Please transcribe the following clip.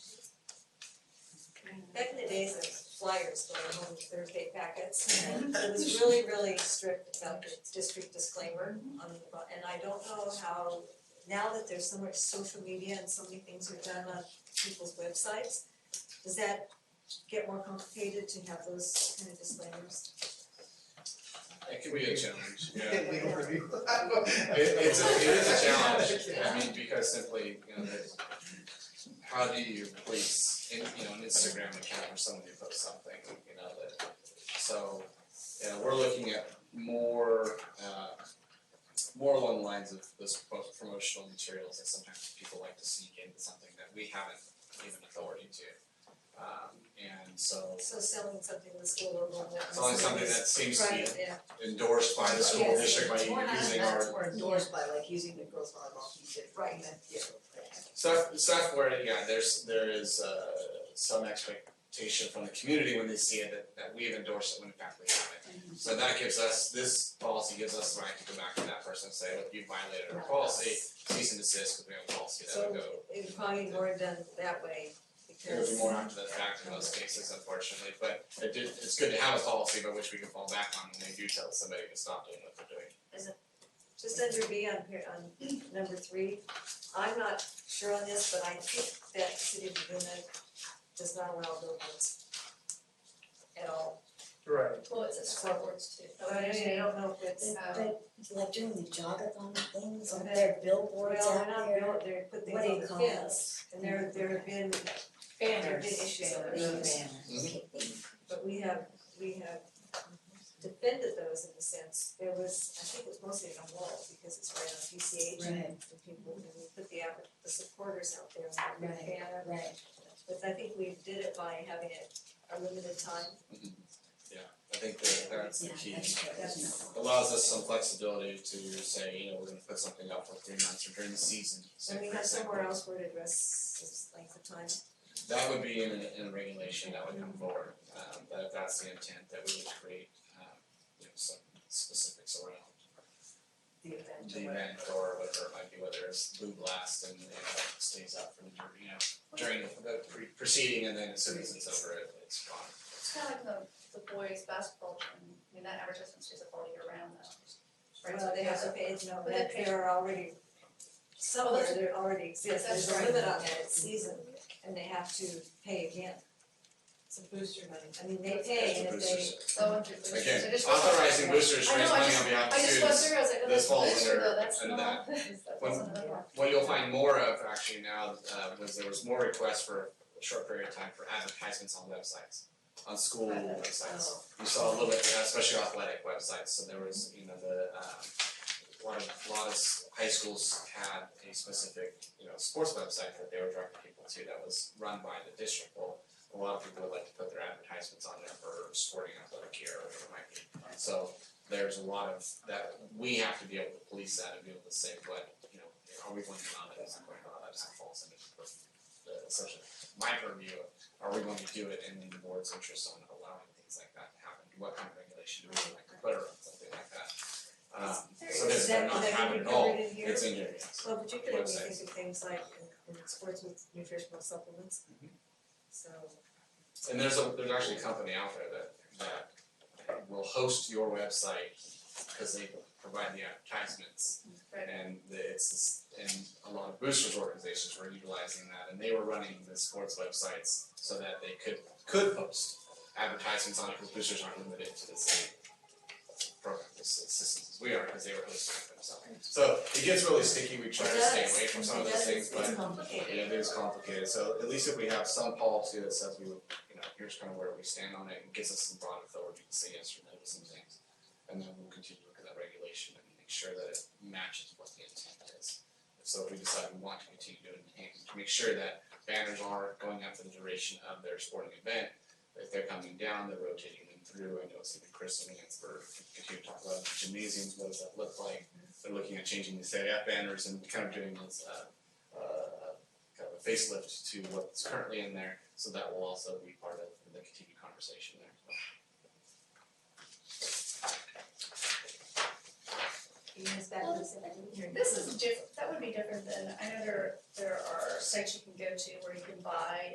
back in the days of flyers going home Thursday packets, and it was really, really strict about the district disclaimer on the, bu- and I don't know how, now that there's so much social media and so many things are done on people's websites, does that get more complicated to have those kind of disclaimers? It can be a challenge, yeah. Can't we overview? It it's a it is a challenge, I mean, because simply, you know, there's how do you place in, you know, an Instagram account or somebody posts something, you know, that so yeah, we're looking at more uh more along the lines of those pro- promotional materials that sometimes people like to sneak into something that we haven't given authority to. Um and so So selling something that's a little more. it's only something that seems to be Right, yeah, endorsed by the school Yes. district by More not using our that or endorsed by like using the girls volleyball team to. Right. Yeah. Stuff, stuff where, yeah, there's, there is, uh, some expectation from the community when they see it that, that we've endorsed it when in fact we haven't. So that gives us, this policy gives us the right to go back to that person and say, look, you violated our policy, cease and desist, because we have a policy that so would go. it would probably be more done that way, It would because. be more after the fact in most cases unfortunately, but it did, it's good to have a policy by which we can fall back on when we do tell somebody to stop doing what they're doing. just under B on par- on number three, I'm not sure on this, but I think that city of Laguna does not allow billboards at all. Right. Well, it's a scoreboards too. Oh, But I mean, I don't know if it's, uh, Um, But like doing the jogathon things, Okay. are there billboards well, out they're not there? bill- they're put things What do on you the call fence, this? and there there have been, there have been issues over Banners. those, but we have, we have defended those in the sense, there was, I think it was mostly on a wall, because it's right on PCH and Right, people, and we put the app, the supporters out there, and we put Right. banner right, But I think we did it by having it a limited time. Mm-hmm. I think that uh, that's the yeah, key. that's true, that's not. allows us some flexibility to say, you know, we're gonna put something up for three months or during the season, say And we for have somewhere example. else where to address this length of time. That would be in a, in a regulation that would come forward, um, that if that's the intent, that we would create, um, you know, some specifics around The event. the event or whatever it might be, whether it's blue blast and, you know, it stays up from, dur- you know, during the pre- proceeding and then as soon as it's over, it, it's gone. It's kind of like the, the boys' basketball team, I mean, that advertisement stays up all year round though. Right, so Well, Oh, they have to a- pay, no, But that they- there are already, somewhere there already exists, That's there's a right. limit on that, it's season, and they have to pay again. It's a booster money, I mean, they pay and if they, so under boosters, I Again, just- authorizing boosters to I raise know, I money just- on behalf of I just students. went through, I was like, this oh, that's a falls booster under- though, that's under not, that When- wasn't another one. What you'll find more of actually now, uh, was there was more requests for a short period of time for advertisements on websites, on school websites. You saw a little bit, uh, especially athletic websites, so there was, you know, the, um, a lot of, a lot of s- high schools had a specific, you know, sports website that they were directing people to that was run by the district. Well, a lot of people would like to put their advertisements on there for sporting athletic gear or whatever it might be. So there's a lot of that, we have to be able to police that and be able to say, what, you know, are we going to allow that, is it going to allow that, is it falls into the, the, such a, my purview of, are we going to do it in the board's interest on allowing things like that to happen? What kind of regulation do we like to put around something like that? Um, so Is this that- does not is that happen gonna be at all, covered in here? it's in here, yes. well, particularly when you Websites. think of things like in in sports with nutritional supplements. Mm-hmm. So, And there's a, there's actually a company out there that, that will host your website, cause they provide the advertisements. Right. And the- it's, and a lot of boosters organizations were utilizing that, and they were running the sports websites so that they could, could post advertisements on it, because boosters aren't limited to the same program s- systems as we are, because they were hosting it themselves. So it gets really sticky, we try It to stay does. away from some of It those does. things, but It's complicated. yeah, it is complicated, so at least if we have some policy that says we, would, you know, here's kind of where we stand on it, and gives us some broad authority to say yes or no to some things. And then we'll continue to look at that regulation and make sure that it matches what the intent is. So if we decide we want to continue doing it, and to make sure that banners are going up for the duration of their sporting event, if they're coming down, they're rotating them through, I know it's even Chris and Lance were continuing to talk about gymnasiums, what does that look like? They're looking at changing the CIF banners and kind of doing this uh uh kind of a facelift to what's currently in there, so that will also be part of the continued conversation there. you guys back to this, I didn't hear. This is diff, that would be different than, I know there, there are sites you can go to where you can buy